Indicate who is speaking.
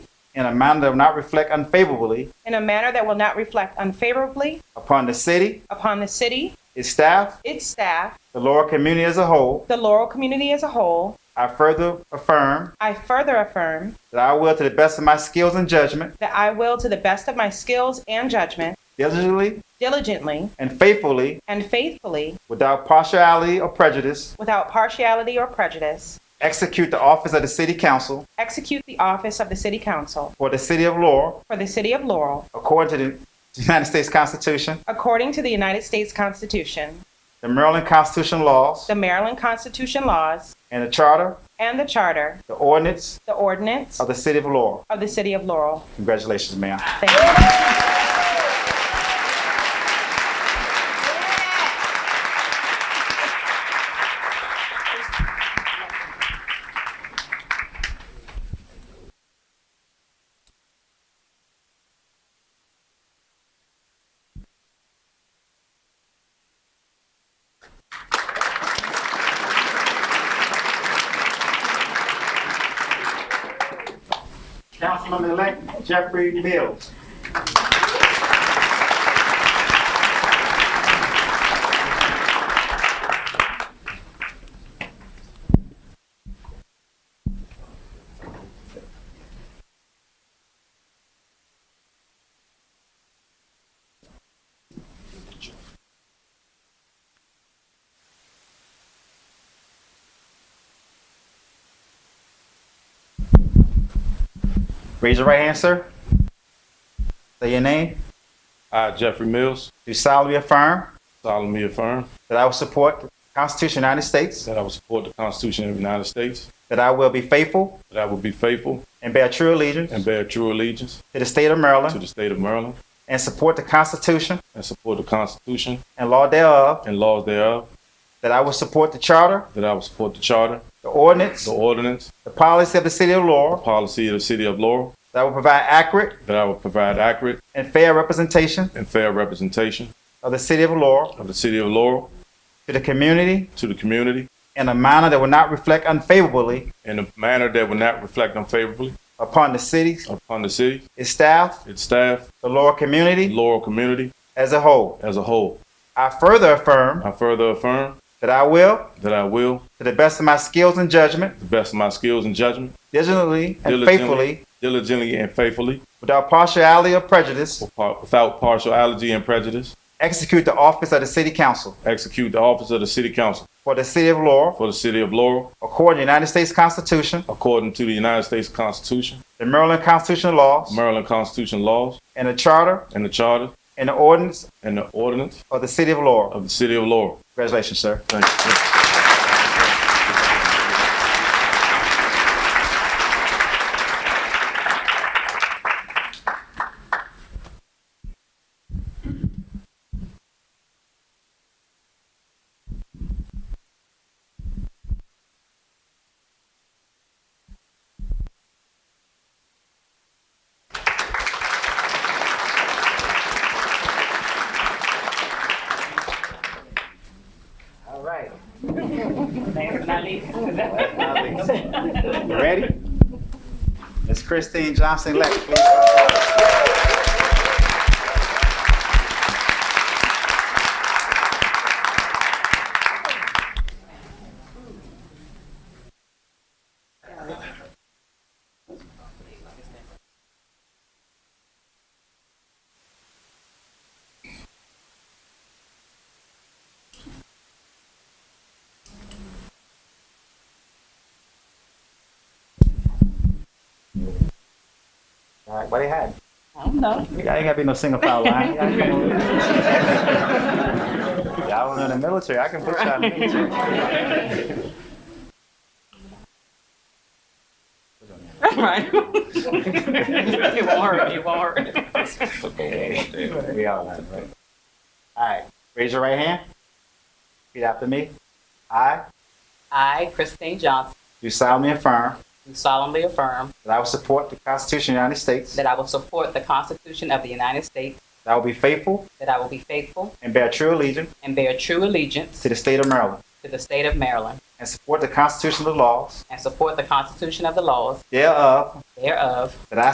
Speaker 1: in a manner that will not reflect unfavorably
Speaker 2: in a manner that will not reflect unfavorably
Speaker 1: upon the city,
Speaker 2: upon the city,
Speaker 1: its staff,
Speaker 2: its staff,
Speaker 1: the Laurel community as a whole.
Speaker 2: the Laurel community as a whole,
Speaker 1: I further affirm
Speaker 2: I further affirm
Speaker 1: that I will, to the best of my skills and judgment,
Speaker 2: that I will, to the best of my skills and judgment,
Speaker 1: diligently
Speaker 2: diligently
Speaker 1: and faithfully,
Speaker 2: and faithfully,
Speaker 1: without partiality or prejudice,
Speaker 2: without partiality or prejudice,
Speaker 1: execute the office of the City Council
Speaker 2: execute the office of the City Council
Speaker 1: for the City of Laurel
Speaker 2: for the City of Laurel
Speaker 1: according to the United States Constitution,
Speaker 2: according to the United States Constitution,
Speaker 1: the Maryland Constitution laws,
Speaker 2: the Maryland Constitution laws,
Speaker 1: and the Charter,
Speaker 2: and the Charter,
Speaker 1: the ordinance
Speaker 2: the ordinance
Speaker 1: of the City of Laurel.
Speaker 2: of the City of Laurel.
Speaker 1: Congratulations, Mayor.
Speaker 2: Thank you.
Speaker 1: Councilman-elect Jeffrey Mills. Raise your right hand, sir. Say your name.
Speaker 3: I, Jeffrey Mills,
Speaker 1: Do solemnly affirm
Speaker 3: solemnly affirm
Speaker 1: that I will support the Constitution of the United States,
Speaker 3: that I will support the Constitution of the United States,
Speaker 1: that I will be faithful
Speaker 3: that I will be faithful
Speaker 1: and bear true allegiance
Speaker 3: and bear true allegiance
Speaker 1: to the state of
Speaker 3: to
Speaker 1: Maryland,
Speaker 3: the state of Maryland,
Speaker 1: and support the Constitution
Speaker 3: and support the Constitution
Speaker 1: and law thereof,
Speaker 3: and laws thereof,
Speaker 1: that I will support the Charter,
Speaker 3: that I will support the Charter,
Speaker 1: the ordinance,
Speaker 3: the ordinance,
Speaker 1: the policy of the City of Laurel,
Speaker 3: policy of the City of Laurel,
Speaker 1: that I will provide accurate
Speaker 3: that I will provide accurate
Speaker 1: and fair representation
Speaker 3: and fair representation
Speaker 1: of the City of Laurel
Speaker 3: of the City of Laurel
Speaker 1: to the community
Speaker 3: to the community
Speaker 1: in a manner that will not reflect unfavorably
Speaker 3: in a manner that will not reflect unfavorably
Speaker 1: upon the city,
Speaker 3: upon the city,
Speaker 1: its staff,
Speaker 3: its staff,
Speaker 1: the Laurel
Speaker 3: and
Speaker 1: community
Speaker 3: Laurel community
Speaker 1: as a whole.
Speaker 3: as a whole.
Speaker 1: I further affirm
Speaker 3: I further affirm
Speaker 1: that I will
Speaker 3: that I will,
Speaker 1: To the best of my skills and judgment,
Speaker 3: to the best of my skills and judgment,
Speaker 1: diligently and
Speaker 3: Diligently.
Speaker 1: faithfully,
Speaker 3: diligently and faithfully,
Speaker 1: without partiality or prejudice,
Speaker 3: par- without partiality and prejudice,
Speaker 1: execute the office of the City Council
Speaker 3: execute the office of the City Council
Speaker 1: for the City of Laurel
Speaker 3: for the City of Laurel
Speaker 1: according to the United States Constitution,
Speaker 3: according to the United States Constitution,
Speaker 1: the Maryland Constitutional laws,
Speaker 3: Maryland Constitution laws,
Speaker 1: and the Charter
Speaker 3: and the Charter
Speaker 1: and the ordinance
Speaker 3: and the ordinance
Speaker 1: of the City of Laurel.
Speaker 3: of the City of Laurel.
Speaker 1: Congratulations, sir.
Speaker 3: Thank you.
Speaker 1: All right. You ready? Ms. Christine Johnson Leck, please. All right, what they had? I don't know. You ain't gotta be no single file line. Y'all was in the military, I can put y'all in the military.
Speaker 4: Right. it won't hurt. It won't hurt.
Speaker 1: We all have, right? All right, raise your right hand. Repeat after me. I
Speaker 4: I, Christine Johnson,
Speaker 1: do solemnly affirm
Speaker 4: do solemnly affirm
Speaker 1: that I will support the Constitution of the United States, that
Speaker 4: that I will support the Constitution of the United States,
Speaker 1: I will be faithful
Speaker 4: that I will be faithful
Speaker 1: and bear true allegiance
Speaker 4: and bear true allegiance
Speaker 1: to the state of Maryland,
Speaker 4: to the state of Maryland,
Speaker 1: and support the constitutional laws
Speaker 4: and support the Constitution of the laws
Speaker 1: thereof,
Speaker 4: thereof,
Speaker 1: that I